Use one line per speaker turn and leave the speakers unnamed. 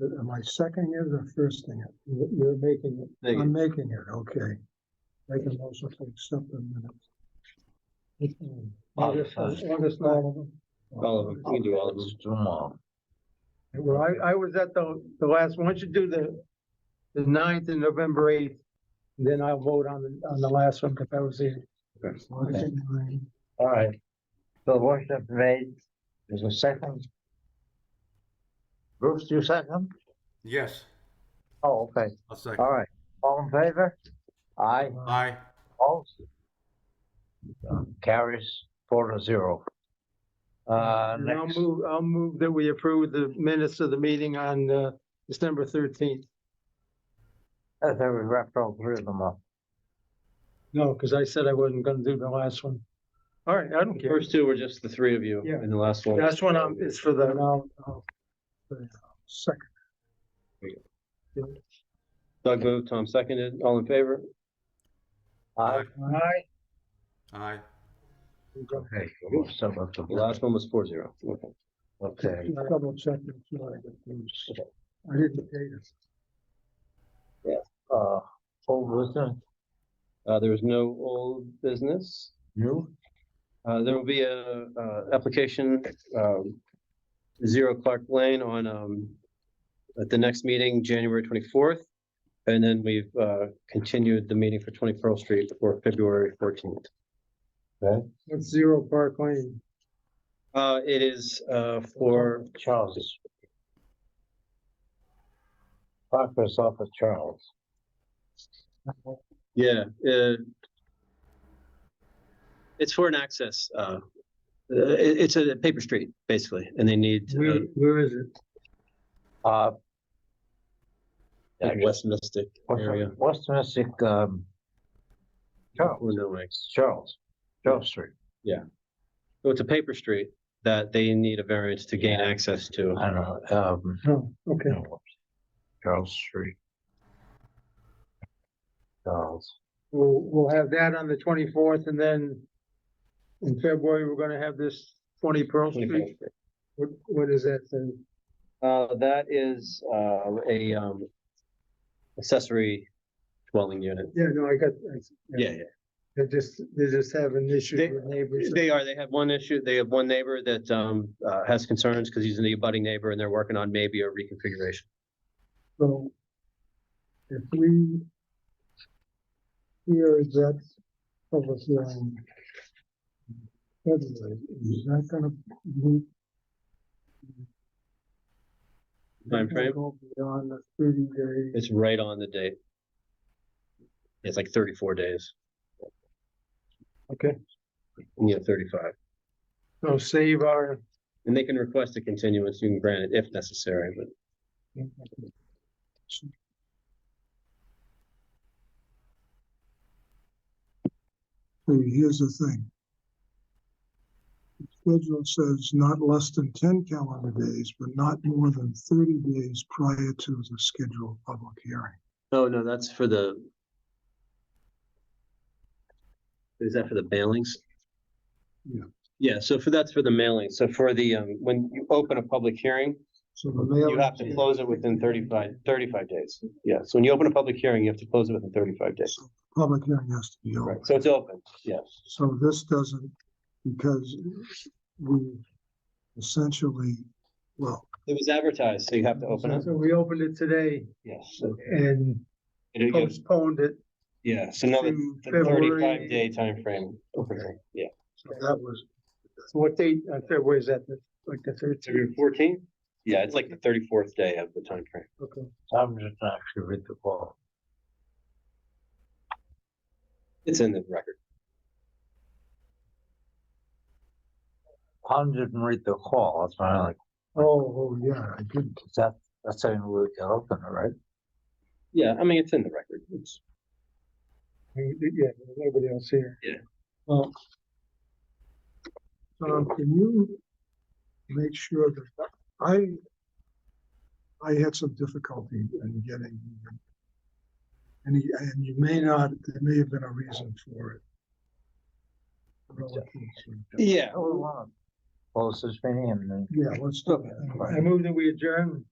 Uh, Am I seconding it or firsting it? You- You're making it.
Make
I'm making it, okay. Make a motion to accept the minutes. August,
uh,
August, all of them.
All of them, you can do all of them.
Just do 'em all.
Well, I, I was at the, the last one, Once you do the, the ninth and November eighth, then I'll vote on, the on the last one, because I was there.
Okay.
Okay.
All right. So worship made, there's a second. Bruce, you second?
Yes,
Oh, okay,
I'll second.
all right. All in favor? Aye,
Aye.
all. Carries four to zero. Uh,
And I'll
next,
move, I'll move that we approve the minutes of the meeting on, uh, December thirteenth.
I think we wrapped all three of them up.
No, because I said I wasn't gonna do the last one. All right, I don't
The
care.
First two were just the three of you,
Yeah.
and the last one.
That's one, um, it's for the,
Second,
Doug moved, Tom seconded, all in favor?
Aye,
Aye.
Aye.
okay, we'll sum up the
The
last,
last one was four zero. Okay.
okay.
just double check. it, so I get these. I didn't date it.
Uh, old business,
Uh, there is no old business.
new,
Uh, there will be a, uh, application, um, Zero Clark Lane on, um, at the next meeting, January twenty-fourth. And then we've, uh, continued the meeting for Twenty Pearl Street for February fourteenth.
it's Zero Park Lane.
Uh, it is, uh, for,
Charles. Parker's off of Charles.
yeah, uh, it's for an access, uh, uh, it, it's a paper street, basically, and they need, uh,
Where, where is it?
Uh.
like West Mystic area. Oh,
West Mystic, um. Charles,
Illinois.
Charles, Charles Street.
So it's a paper street that they need a variance to gain
Yeah.
access to.
I don't know, um,
Oh, okay.
no, Charles Street. Charles,
We'll, we'll have that on the twenty-fourth and then in February, we're gonna have this twenty Pearl Street. What, what is that then?
Uh, that is, uh, a, um, accessory dwelling unit.
Yeah, no, I got. I-
Yeah, yeah.
They're just, they're just having issues
They-
with neighbors.
They are, they have one issue, they have one neighbor that, um, uh, has concerns because he's an abutting neighbor and they're working on maybe a reconfiguration.
So if we hear that public hearing in February, is that gonna move?
Time frame?
Go Beyond the thirty days,
It's right on the date. It's like thirty-four days.
Okay.
Yeah, thirty-five.
So save our,
And they can request a continuance, you can grant it if necessary, but
so here's the thing. The Schedule says not less than ten calendar days, but not more than thirty days prior to the scheduled public hearing.
Oh, no, that's for the. Is that for the mailings?
Yeah.
Yeah, so for, that's for the mailing. So for the, um, when you open a public hearing,
So the mail.
you have to close it within 35 35 days. Yeah, so when you open a public hearing, you have to close it within thirty-five days.
So the Public hearing has to be
Right,
open.
so it's open, yes.
So this doesn't, because we essentially, well,
It was advertised, so you have to open it.
so we opened it today
Yes. so-
and
and you get-
postponed it.
Yeah, so now the
to
the
February.
thirty-five day timeframe. opening, Yeah.
so that was,
So What date,
uh,
on February is that, the- like the thirteenth?
February fourteenth? Yeah, it's like the thirty-fourth day of the time frame.
Okay.
I'm just not sure read the call.
It's in the record.
Tom didn't read the call, that's why I'm like,
oh, oh, yeah, I didn't.
is that, that's how we can open it, right?
Yeah, I mean, it's in the record. It's.
Yeah, there's nobody else here.
Um, can you make sure that, I, I had some difficulty in getting and he, and you may not, there may have been a reason for it. Relative to-
Yeah,
Oh, wow. Close this meeting and then.
Yeah, let's do that.
I move that we adjourn.